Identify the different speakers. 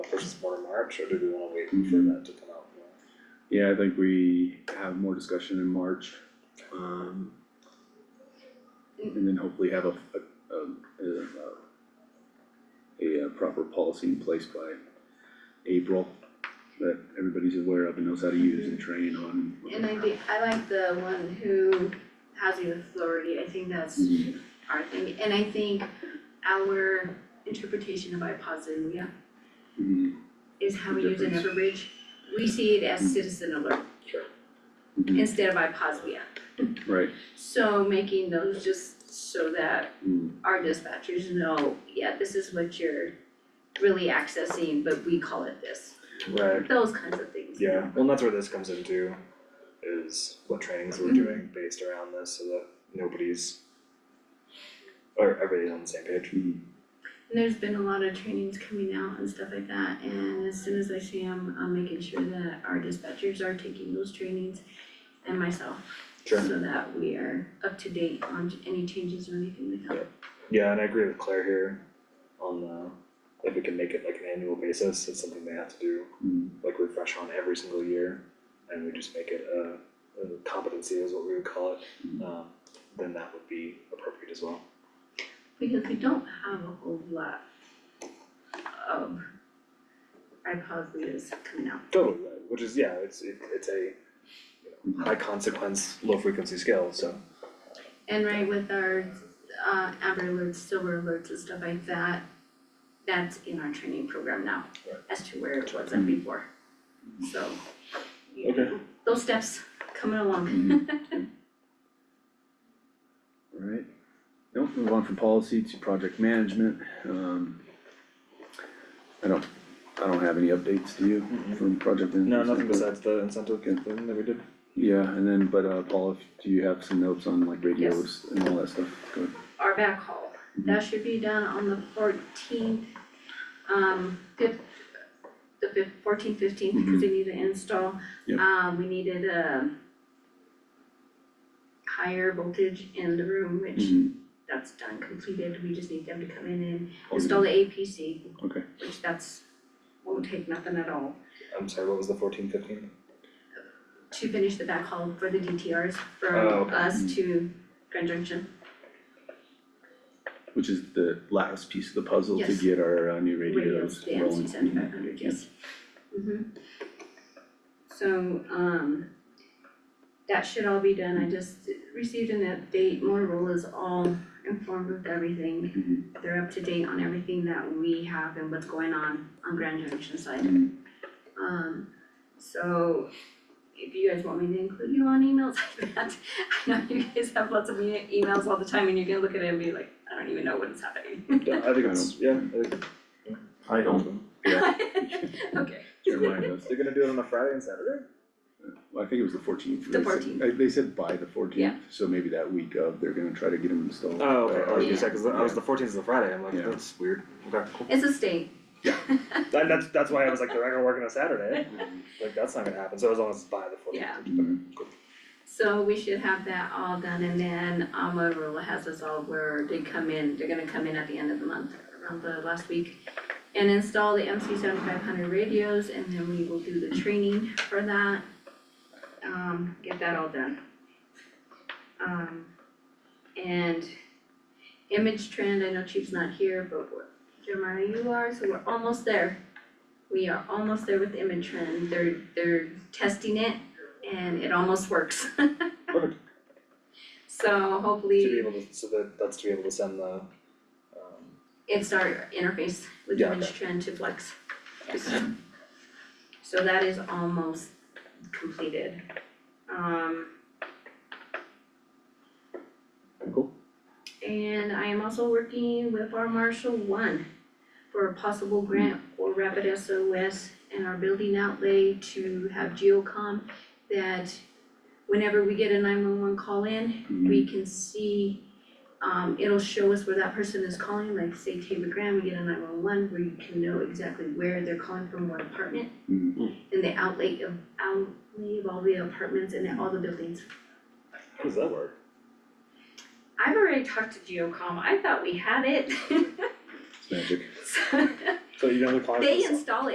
Speaker 1: first more March, or do we wanna wait for that to come out? more?
Speaker 2: Yeah, I think we have more discussion in March, um. And then hopefully have a, a, a, a, uh, proper policy in place by April. That everybody's aware of and knows how to use and train on.
Speaker 3: And I think, I like the one who housing authority, I think that's
Speaker 2: Mhm.
Speaker 3: our thing, and I think our interpretation of IPOSITIVIA
Speaker 2: Mhm.
Speaker 3: is how we use it in
Speaker 2: Difference.
Speaker 3: Everbridge. We see it as citizen alert
Speaker 2: Mhm.
Speaker 3: instead of IPOSITIVIA,
Speaker 2: Right,
Speaker 3: so making those just so that
Speaker 2: Mhm.
Speaker 3: our dispatchers know, yeah, this is what you're really accessing, but we call it this,
Speaker 1: Right,
Speaker 3: those kinds of things.
Speaker 1: yeah, well, and that's where this comes into, is what trainings we're doing based around this, so that nobody's. Or everybody's on the same page.
Speaker 2: Mhm.
Speaker 3: And There's been a lot of trainings coming out and stuff like that, and as soon as I see them, I'm making sure that our dispatchers are taking those trainings and myself.
Speaker 1: Sure.
Speaker 3: So that we are up to date on any changes or anything like that.
Speaker 1: Yeah, and I agree with Claire here on the, if we can make it like an annual basis, it's something they have to do,
Speaker 2: Mhm.
Speaker 1: like refresh on every single year. And we just make it a, a competency is what we would call it, um, then that would be appropriate as well.
Speaker 3: Because we don't have a whole lot of iPod readers coming out.
Speaker 1: Totally, right, which is, yeah, it's, it, it's a, you know, high consequence, low frequency scale, so.
Speaker 3: And right with our uh Amber alerts, silver alerts and stuff like that, that's in our training program now.
Speaker 1: Right.
Speaker 3: As to where it wasn't before. So, you
Speaker 1: Okay.
Speaker 3: know, those steps coming along.
Speaker 2: Alright, don't move on from policy to project management, um. I don't, I don't have any updates to you
Speaker 1: Mhm.
Speaker 2: from project management.
Speaker 1: No, nothing
Speaker 2: standpoint.
Speaker 1: besides the incentive thing that we did.
Speaker 2: Yeah, and then, but uh, Paul, if- do you have some notes on like radios and all that stuff? Go ahead.
Speaker 3: Our backhaul, that should be done on the fourteenth, um, fifth, the fif- 14th, 15th
Speaker 1: Mm-hmm.
Speaker 3: because they need to install.
Speaker 2: Yep.
Speaker 3: Um, we needed a higher voltage in the room, which
Speaker 1: Mm-hmm.
Speaker 2: Mhm.
Speaker 3: that's done, completed, we just need them to come in and
Speaker 2: Oh,
Speaker 3: install the APC,
Speaker 2: Okay,
Speaker 3: which that's, won't take nothing at all.
Speaker 1: I'm sorry, what was the fourteen fifteen?
Speaker 3: To finish the backhaul for the DTRs
Speaker 1: Oh,
Speaker 3: from
Speaker 1: okay.
Speaker 3: us to Grand Junction,
Speaker 2: which is the last piece of the puzzle to
Speaker 3: Yes.
Speaker 2: get our uh, new radios
Speaker 3: radios, the
Speaker 2: rolling.
Speaker 3: MC seventy-five hundred, yes. Mhm. So, um, that should all be done, I just received an update, Motorola's all informed with everything.
Speaker 2: Mhm.
Speaker 3: They're up to date on everything that we have and what's going on on Grand Junction side.
Speaker 2: Mhm.
Speaker 3: Um, so if you guys want me to include you on emails, I bet, I know you guys have lots of e- emails all the time and you're gonna look at it and be like, I don't even know what is happening.
Speaker 1: I think it's, yeah, I think
Speaker 4: I don't,
Speaker 2: Yeah.
Speaker 3: Okay,
Speaker 2: Jeremiah does.
Speaker 1: they're gonna do it on a Friday and Saturday?
Speaker 2: Well, I think it was the fourteenth.
Speaker 3: The 14th.
Speaker 2: They said by the
Speaker 3: Yeah.
Speaker 2: fourteenth, so maybe that week of, they're gonna try to get them installed.
Speaker 1: Oh, okay, I was
Speaker 3: Yeah.
Speaker 1: gonna say, cause I was, the fourteenth is the Friday, I'm like,
Speaker 2: Yeah.
Speaker 1: that's weird, okay, cool.
Speaker 3: it's a state,
Speaker 1: That, that's, that's why I was like, they're not gonna work on a Saturday, like, that's not gonna happen, so as long as it's by the fourteenth.
Speaker 3: Yeah.
Speaker 2: Mhm.
Speaker 3: so we should have that all done and then um Motorola has us all where they come in, they're gonna come in at the end of the month, around the last week. And install the MC seventy-five hundred radios and then we will do the training for that. Um, get that all done. Um, and image trend, I know Chief's not here, but we're- Jeremiah, you are, so we're almost there. We are almost there with image trend, they're, they're testing it and it almost works.
Speaker 1: Perfect.
Speaker 3: So
Speaker 1: To be
Speaker 3: hopefully
Speaker 1: able to, so that, that's to be able to send the, um,
Speaker 3: it's our interface with
Speaker 1: Yeah,
Speaker 3: image trend to flex. So that is almost completed. Um,
Speaker 1: cool,
Speaker 3: And I am also working with our Marshall One for a possible grant for Rapid SOS and our building outlay to have GeoCom that whenever we get a nine-one-one call in,
Speaker 2: Mm-hmm.
Speaker 3: we can see, um, it'll show us where that person is calling, like say Taylor Graham, we get a nine-one-one where you can know exactly where they're calling from, what apartment,
Speaker 2: Mhm.
Speaker 3: and the outlay of, outlay of all the apartments and all the buildings.
Speaker 1: how does that work?
Speaker 3: I've already talked to GeoCom, I thought we had it.
Speaker 2: It's magic.
Speaker 3: So
Speaker 1: So you're gonna call it.
Speaker 3: They install it